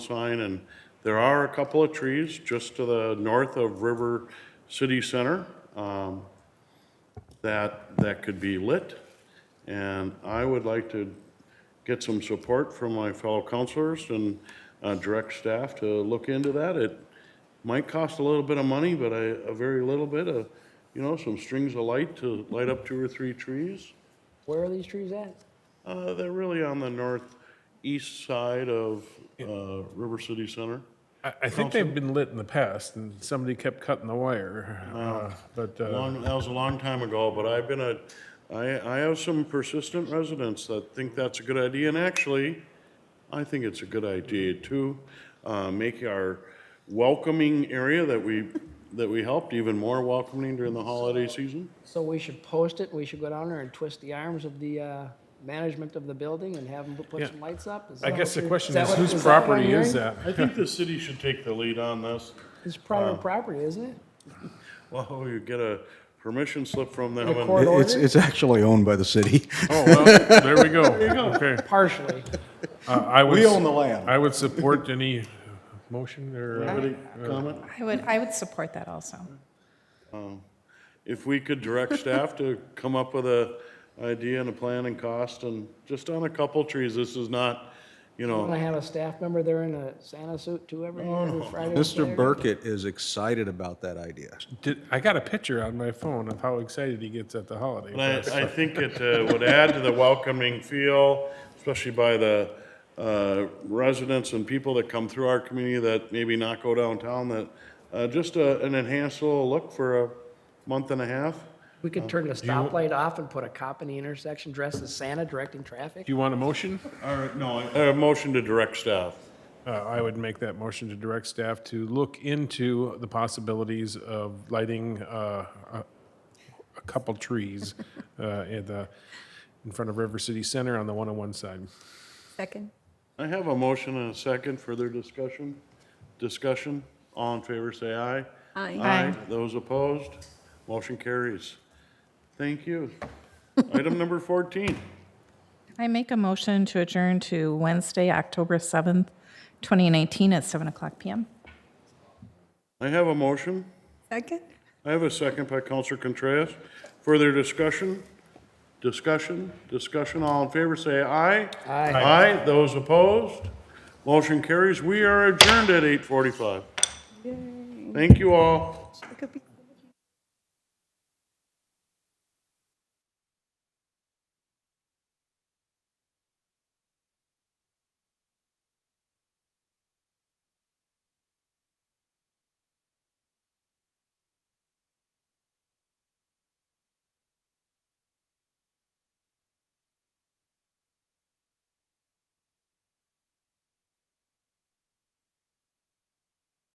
sign, and there are a couple of trees just to the north of River City Center um, that, that could be lit. And I would like to get some support from my fellow counselors and uh, direct staff to look into that. It might cost a little bit of money, but a, a very little bit of, you know, some strings of light to light up two or three trees. Where are these trees at? Uh, They're really on the northeast side of uh, River City Center. I, I think they've been lit in the past, and somebody kept cutting the wire. uh, But, uh, Long, that was a long time ago, but I've been a, I, I have some persistent residents that think that's a good idea, and actually, I think it's a good idea to, uh, make our welcoming area that we, that we helped even more welcoming during the holiday season. So we should post it, we should go down there and twist the arms of the uh, management of the building and have them put Yeah. some lights up? Is I that guess what the you're- question that is, what- whose that what I'm property is hearing? that? I think the city should take the lead on this. It's Uh. private property, isn't it? Well, you get a permission slip from them. In a and- court It's, order? it's actually owned by the city. Oh, well, there we go. Okay. Partially. Uh, I would We s- own the land. I would support any motion or, uh, Anybody comment? I would, I would support that also. if we could direct staff to come up with a idea and a plan and cost, and just on a couple trees, this is not, you Want to know, have a staff member there in a Santa suit too every, every Friday? and Mr. Saturday? Burkett is excited about that idea. did, I got a picture on my phone of how excited he gets at the holiday. but fest. I, I think it uh, would add to the welcoming feel, especially by the uh, residents and people that come through our community that maybe not go downtown, that, uh, just a- an enhanced little look for a month and a half. We could turn the stoplight off and put a cop in the intersection dressed as Santa directing traffic? Do you want a motion? All right, no. A motion to direct staff. Uh, I would make that motion to direct staff to look into the possibilities of lighting uh, a a couple trees uh, in the, in front of River City Center on the 101 side. Second. I have a motion and a second, further discussion? Discussion, all in favor, say aye. Aye. Aye. Those opposed, motion carries. Thank you. Item number 14, I make a motion to adjourn to Wednesday, October 7th, 2019 at 7 o'clock PM. I have a motion. Second. I have a second by Counselor Contreras. Further discussion? Discussion, discussion, all in favor, say aye. Aye. Aye, those opposed, motion carries. We are adjourned at 8:45. Thank you all. Look at me.